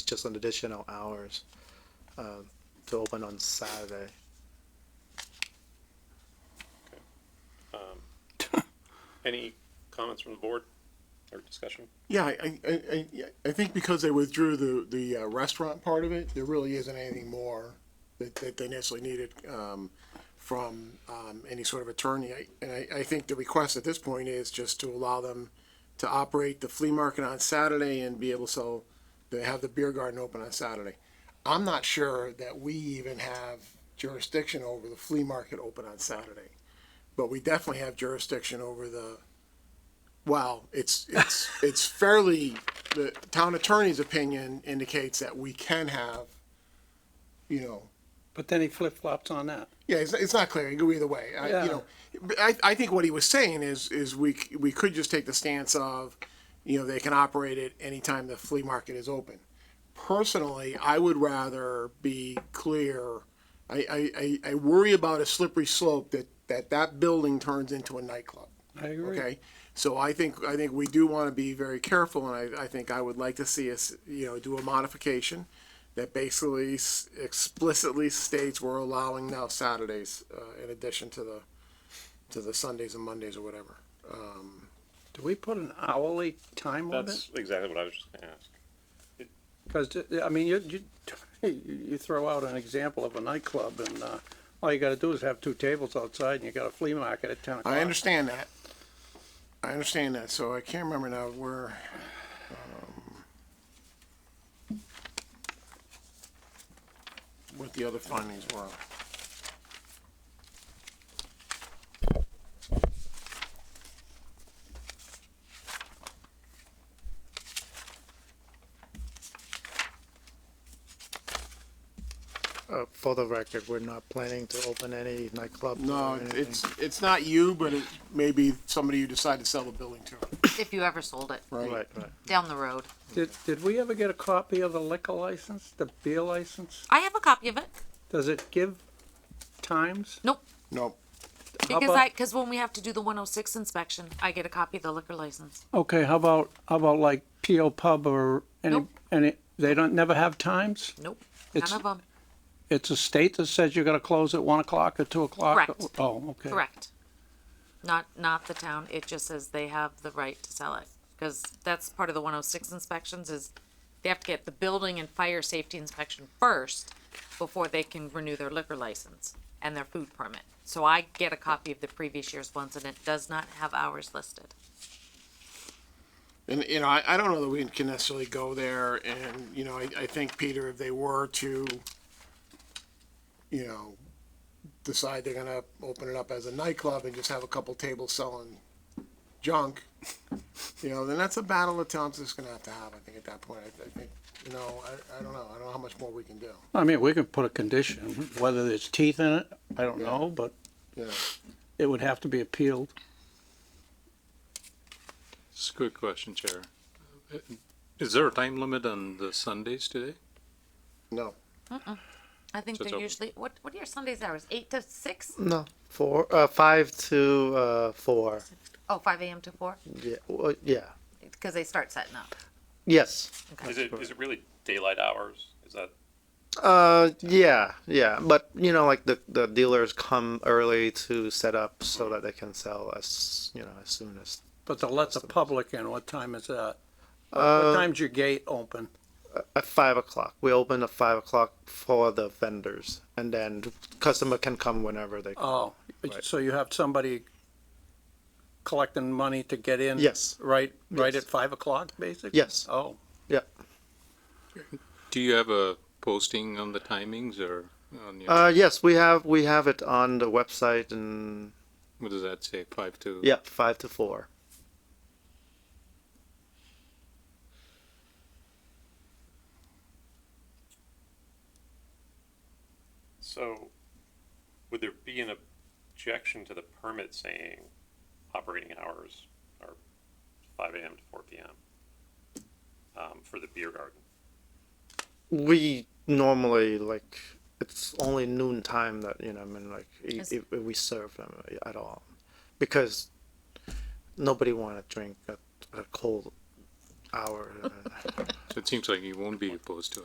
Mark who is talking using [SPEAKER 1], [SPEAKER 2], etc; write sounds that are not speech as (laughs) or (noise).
[SPEAKER 1] just an additional hours um, to open on Saturday.
[SPEAKER 2] Any comments from the board or discussion?
[SPEAKER 3] Yeah, I, I, I, I think because they withdrew the, the uh, restaurant part of it, there really isn't anything more that, that they necessarily needed, um, from, um, any sort of attorney. I- And I, I think the request at this point is just to allow them to operate the flea market on Saturday and be able to sell, to have the beer garden open on Saturday. I'm not sure that we even have jurisdiction over the flea market open on Saturday. But we definitely have jurisdiction over the, well, it's, it's, it's fairly, the town attorney's opinion indicates that we can have, you know,
[SPEAKER 4] But then he flip flops on that.
[SPEAKER 3] yeah, it's, it's not clear. You go either way. I,
[SPEAKER 4] Yeah.
[SPEAKER 3] You know, but I, I think what he was saying is is we c- we could just take the stance of, you know, they can operate it anytime the flea market is open. Personally, I would rather be clear. I, I, I, I worry about a slippery slope that, that that building turns into a nightclub.
[SPEAKER 4] I agree.
[SPEAKER 3] Okay, so I think, I think we do want to be very careful, and I, I think I would like to see us, you know, do a modification that basically s- explicitly states we're allowing now Saturdays, uh, in addition to the, to the Sundays and Mondays or whatever.
[SPEAKER 4] Do we put an hourly time limit?
[SPEAKER 2] That's exactly what I was just gonna ask.
[SPEAKER 4] Because, uh, I mean, you, you, (laughs) you throw out an example of a nightclub and, uh, all you gotta do is have two tables outside and you got a flea market at ten o'clock.
[SPEAKER 3] I understand that. I understand that, so I can't remember now where, um, what the other findings were.
[SPEAKER 1] Uh, for the record, we're not planning to open any nightclub.
[SPEAKER 3] No,
[SPEAKER 1] or
[SPEAKER 3] it-
[SPEAKER 1] anything.
[SPEAKER 3] it's, it's not you, but it may be somebody you decide to sell the building to,
[SPEAKER 5] if you ever sold it
[SPEAKER 1] Right, right.
[SPEAKER 5] down the road.
[SPEAKER 4] Did, did we ever get a copy of the liquor license, the beer license?
[SPEAKER 5] I have a copy of it
[SPEAKER 4] Does it give times?
[SPEAKER 5] Nope.
[SPEAKER 3] Nope.
[SPEAKER 4] How
[SPEAKER 5] because
[SPEAKER 4] about-
[SPEAKER 5] I because when we have to do the 106 inspection, I get a copy of the liquor license.
[SPEAKER 4] Okay, how about, how about like P.O. Pub or any,
[SPEAKER 5] Nope.
[SPEAKER 4] any, they don't, never have times?
[SPEAKER 5] Nope,
[SPEAKER 4] It's-
[SPEAKER 5] none of them.
[SPEAKER 4] It's a state that says you're gonna close at one o'clock or two o'clock?
[SPEAKER 5] Correct.
[SPEAKER 4] Oh, okay.
[SPEAKER 5] Correct. Not not the town. It just says they have the right to sell it because that's part of the 106 inspections is they have to get the building and fire safety inspection first before they can renew their liquor license and their food permit. So I get a copy of the previous year's ones and it does not have hours listed.
[SPEAKER 3] And, you know, I, I don't know that we can necessarily go there and, you know, I, I think, Peter, if they were to, you know, decide they're gonna open it up as a nightclub and just have a couple tables selling junk, you know, then that's a battle the town's just gonna have to have, I think, at that point. I, I think, you know, I, I don't know. I don't know how much more we can do.
[SPEAKER 4] I mean, we could put a condition, whether there's teeth in it, I don't know, but
[SPEAKER 3] Yeah.
[SPEAKER 4] it would have to be appealed.
[SPEAKER 6] It's a good question, Chair. Is there a time limit on the Sundays today?
[SPEAKER 3] No.
[SPEAKER 5] I think
[SPEAKER 6] So it's
[SPEAKER 5] they're
[SPEAKER 6] open.
[SPEAKER 5] usually what what are your Sundays hours? Eight to six?
[SPEAKER 1] No, four, uh, five to uh, four.
[SPEAKER 5] Oh, 5 a.m. to 4?
[SPEAKER 1] Yeah, well, yeah,
[SPEAKER 5] Because they start setting up.
[SPEAKER 1] yes.
[SPEAKER 2] Is it, is it really daylight hours? Is that,
[SPEAKER 1] Uh, yeah, yeah, but you know, like the the dealers come early to set up so that they can sell as you know as soon as
[SPEAKER 4] But to let the public in, what time is that? Uh,
[SPEAKER 1] Uh,
[SPEAKER 4] What time's your gate open?
[SPEAKER 1] at five o'clock. We open at five o'clock for the vendors, and then customer can come whenever they.
[SPEAKER 4] Oh,
[SPEAKER 1] Right.
[SPEAKER 4] so you have somebody collecting money to get in?
[SPEAKER 1] Yes.
[SPEAKER 4] Right, right
[SPEAKER 1] Yes.
[SPEAKER 4] at five o'clock, basically?
[SPEAKER 1] Yes.
[SPEAKER 4] Oh,
[SPEAKER 1] Yeah.
[SPEAKER 6] Do you have a posting on the timings or on your,
[SPEAKER 1] Uh, yes, we have we have it on the website and
[SPEAKER 6] what does that say, five to?
[SPEAKER 1] yeah, five to four.
[SPEAKER 2] so would there be an objection to the permit saying operating hours are five AM to four PM? Um, for the beer garden?
[SPEAKER 1] We normally like it's only noon time that you know I mean like i-
[SPEAKER 5] Is-
[SPEAKER 1] if, if we serve them uh, at all, because nobody want to drink at a cold hour. uh,
[SPEAKER 6] So it seems like you won't be opposed to it.